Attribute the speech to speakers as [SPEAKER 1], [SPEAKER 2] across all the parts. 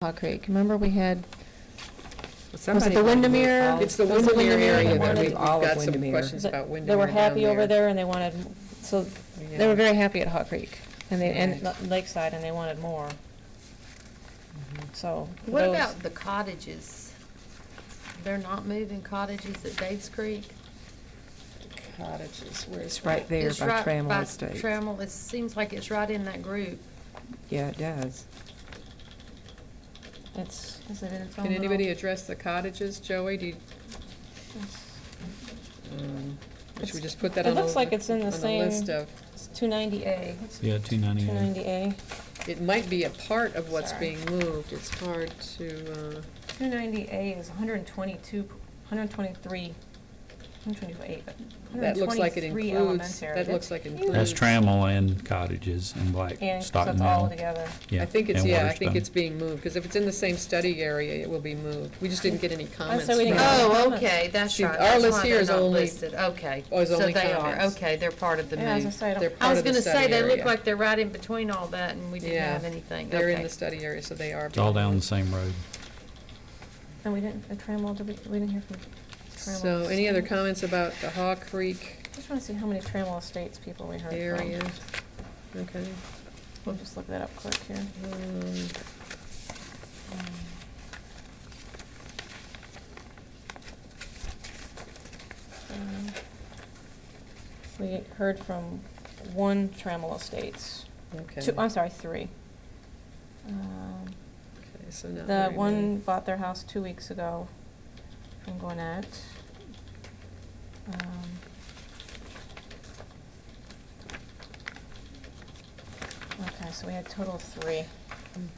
[SPEAKER 1] Hawk Creek. Remember we had, was it
[SPEAKER 2] Somebody
[SPEAKER 1] the
[SPEAKER 2] wanted to
[SPEAKER 1] Windermere?
[SPEAKER 2] move all- It's the
[SPEAKER 1] It was
[SPEAKER 2] Windermere area that
[SPEAKER 1] wanted-
[SPEAKER 2] we've all of
[SPEAKER 3] got some
[SPEAKER 2] Windermere.
[SPEAKER 3] questions
[SPEAKER 1] that-
[SPEAKER 3] about
[SPEAKER 1] They
[SPEAKER 3] Windermere
[SPEAKER 1] were
[SPEAKER 3] down
[SPEAKER 1] happy over
[SPEAKER 3] there.
[SPEAKER 1] there and they wanted, so, they
[SPEAKER 2] Yeah.
[SPEAKER 1] were very happy at Hawk Creek and they, and
[SPEAKER 2] Right.
[SPEAKER 1] Lakeside and they wanted more, so.
[SPEAKER 4] What
[SPEAKER 1] those-
[SPEAKER 4] about the cottages? They're not moving cottages at Dave's Creek?
[SPEAKER 3] Cottages, where's
[SPEAKER 2] It's right
[SPEAKER 3] that?
[SPEAKER 2] there
[SPEAKER 4] It's
[SPEAKER 2] by
[SPEAKER 4] right
[SPEAKER 2] Trammell
[SPEAKER 4] by
[SPEAKER 2] Estates.
[SPEAKER 4] Trammell, it seems like it's right in that group.
[SPEAKER 2] Yeah, it does.
[SPEAKER 1] It's,
[SPEAKER 4] Is it in its own
[SPEAKER 3] Can anybody
[SPEAKER 4] little-
[SPEAKER 3] address the cottages, Joey, do you, um, should we just put that
[SPEAKER 1] It
[SPEAKER 3] on the?
[SPEAKER 1] looks like it's in the
[SPEAKER 3] on
[SPEAKER 1] same-
[SPEAKER 3] list of,
[SPEAKER 1] it's two ninety A.
[SPEAKER 5] Yeah, two ninety-eight.
[SPEAKER 1] Two ninety A.
[SPEAKER 3] it might be a part of what's
[SPEAKER 1] Sorry.
[SPEAKER 3] being moved, it's hard to, uh,
[SPEAKER 1] Two ninety A is hundred and twenty-two, hundred and twenty-three, hundred and twenty-eight, but
[SPEAKER 3] that looks like it includes, that looks like includes.
[SPEAKER 5] That's Trammell and cottages and Black
[SPEAKER 1] And, so
[SPEAKER 5] Stockton
[SPEAKER 1] it's all
[SPEAKER 5] Mill.
[SPEAKER 1] together.
[SPEAKER 5] Yeah,
[SPEAKER 3] I think it's,
[SPEAKER 5] and
[SPEAKER 3] yeah, I
[SPEAKER 5] Waterstone.
[SPEAKER 3] think it's being moved, because if it's in the same study area, it will be moved. We just didn't get any comments.
[SPEAKER 1] Oh, we didn't
[SPEAKER 3] from-
[SPEAKER 1] get any
[SPEAKER 4] Oh,
[SPEAKER 1] Comments.
[SPEAKER 4] okay, that's
[SPEAKER 3] See,
[SPEAKER 4] right.
[SPEAKER 3] our
[SPEAKER 4] That's
[SPEAKER 3] list
[SPEAKER 4] why
[SPEAKER 3] here
[SPEAKER 4] they're
[SPEAKER 3] is
[SPEAKER 4] not
[SPEAKER 3] only-
[SPEAKER 4] listed. Okay.
[SPEAKER 3] Oh, is only
[SPEAKER 4] So they are,
[SPEAKER 3] comments.
[SPEAKER 4] okay, they're part of the
[SPEAKER 1] Yeah, as I
[SPEAKER 4] move.
[SPEAKER 1] say, I
[SPEAKER 3] They're
[SPEAKER 1] don't,
[SPEAKER 4] I
[SPEAKER 3] part
[SPEAKER 4] was
[SPEAKER 3] of the
[SPEAKER 4] gonna say,
[SPEAKER 3] study
[SPEAKER 4] they look
[SPEAKER 3] area.
[SPEAKER 4] like they're right in between all that, and we didn't
[SPEAKER 3] Yeah.
[SPEAKER 4] have anything,
[SPEAKER 3] They're in
[SPEAKER 4] okay.
[SPEAKER 3] the study area, so they are.
[SPEAKER 5] It's all
[SPEAKER 3] being
[SPEAKER 5] down the
[SPEAKER 3] moved.
[SPEAKER 5] same road.
[SPEAKER 1] and we didn't, the Trammell, did we, we didn't hear from Trammell.
[SPEAKER 3] So, any other comments about the Haw Creek
[SPEAKER 1] Just wanna see how many Trammell Estates people we heard from.
[SPEAKER 3] area? Okay.
[SPEAKER 1] We'll just look that up quick here.
[SPEAKER 3] um,
[SPEAKER 1] Um, We heard from one Trammell Estates,
[SPEAKER 3] Okay.
[SPEAKER 1] two, I'm sorry, three. Um,
[SPEAKER 3] Okay, so not
[SPEAKER 1] The
[SPEAKER 3] very
[SPEAKER 1] one
[SPEAKER 3] many.
[SPEAKER 1] bought their house two weeks ago from Gwinnett. Um, Okay, so we had total of three.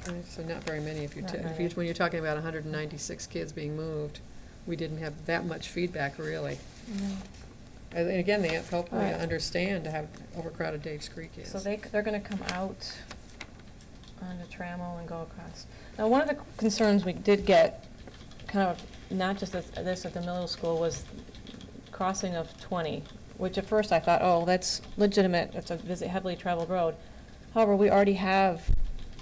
[SPEAKER 3] Okay, So not very many, if you,
[SPEAKER 1] Not
[SPEAKER 3] ta- if
[SPEAKER 1] very
[SPEAKER 3] you,
[SPEAKER 1] many.
[SPEAKER 3] when you're talking about hundred and ninety-six kids being moved, we didn't have that much feedback, really. And and again, they help me
[SPEAKER 1] Right.
[SPEAKER 3] understand how overcrowded Dave's Creek is.
[SPEAKER 1] So they, c- they're gonna come out onto Trammell and go across. Now, one of the concerns we did get, kind of, not just at this, at the middle school, was crossing of twenty, which at first I thought, oh, that's legitimate, it's a busy, heavily traveled road. However, we already have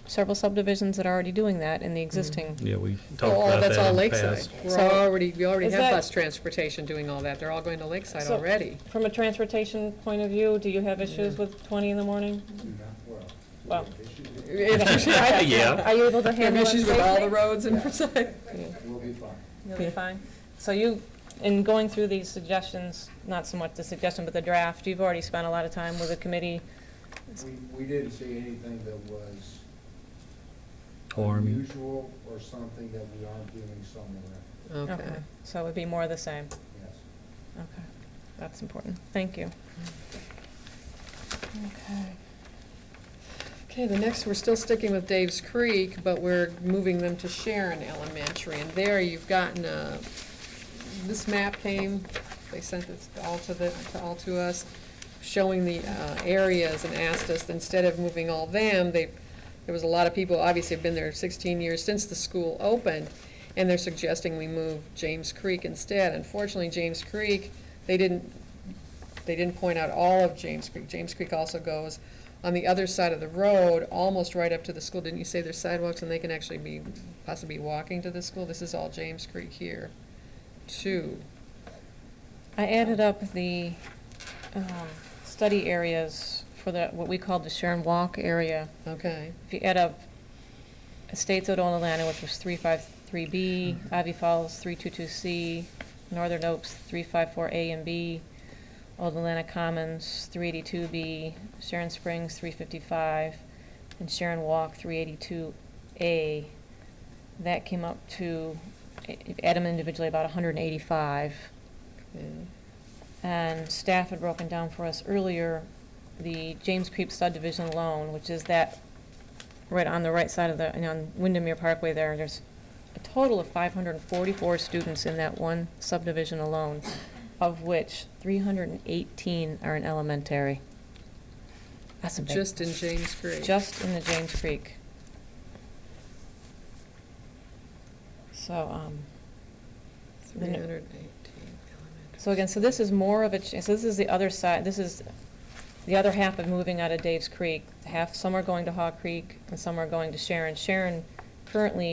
[SPEAKER 1] several subdivisions that are already doing that in the existing.
[SPEAKER 5] Mm-hmm. Yeah, we
[SPEAKER 3] Oh,
[SPEAKER 5] talked about
[SPEAKER 3] that's all
[SPEAKER 5] that in the
[SPEAKER 3] Lakeside.
[SPEAKER 5] past.
[SPEAKER 3] We're
[SPEAKER 1] So-
[SPEAKER 3] already, we already
[SPEAKER 1] Is
[SPEAKER 3] have
[SPEAKER 1] that-
[SPEAKER 3] bus transportation doing all that. They're all going to Lakeside
[SPEAKER 1] So-
[SPEAKER 3] already.
[SPEAKER 1] From a transportation point of view, do you have issues with twenty in the morning? Well,
[SPEAKER 5] Yeah.
[SPEAKER 1] Are you able to
[SPEAKER 3] They have
[SPEAKER 1] handle it
[SPEAKER 3] issues with all the
[SPEAKER 1] safely?
[SPEAKER 3] roads in Forsyth.
[SPEAKER 6] We'll be fine.
[SPEAKER 1] You'll be fine. So you, in going through these suggestions, not so much the suggestion, but the draft, you've already spent a lot of time with the committee.
[SPEAKER 6] We, we didn't see anything that was
[SPEAKER 5] Harm.
[SPEAKER 6] unusual or something that we aren't doing somewhere,
[SPEAKER 3] Okay.
[SPEAKER 1] So it would be more of the same.
[SPEAKER 6] yes.
[SPEAKER 1] Okay, that's important. Thank you. Okay.
[SPEAKER 3] Okay, the next, we're still sticking with Dave's Creek, but we're moving them to Sharon Elementary. And there you've gotten a, this map came, they sent this all to the, to all to us, showing the uh, areas and asked us, instead of moving all them, they, there was a lot of people, obviously have been there sixteen years since the school opened, and they're suggesting we move James Creek instead. Unfortunately, James Creek, they didn't, they didn't point out all of James Creek. James Creek also goes on the other side of the road, almost right up to the school. Didn't you say there's sidewalks and they can actually be, possibly walking to the school? This is all James Creek here, too.
[SPEAKER 1] I added up the um, study areas for the, what we call the Sharon Walk area.
[SPEAKER 3] Okay,
[SPEAKER 1] If you add up Estates Odona Atlanta, which was three five three B, Ivy Falls three two two C, Northern Oaks three five four A and B, Old Atlanta Commons three eighty-two B, Sharon Springs three fifty-five, and Sharon Walk three eighty-two A. That came up to, if you add them individually, about hundred and eighty-five.
[SPEAKER 3] yeah.
[SPEAKER 1] And staff had broken down for us earlier, the James Creek subdivision alone, which is that, right on the right side of the, and on Windermere Parkway there, there's a total of five hundred and forty-four students in that one subdivision alone, of which three hundred and eighteen are in elementary. That's a big.
[SPEAKER 3] Just in James Creek.
[SPEAKER 1] Just in the James Creek. So, um,
[SPEAKER 3] Three hundred and eighteen.
[SPEAKER 1] So again, so this is more of a, ch- so this is the other side, this is the other half of moving out of Dave's Creek. Half, some are going to Haw Creek and some are going to Sharon. Sharon currently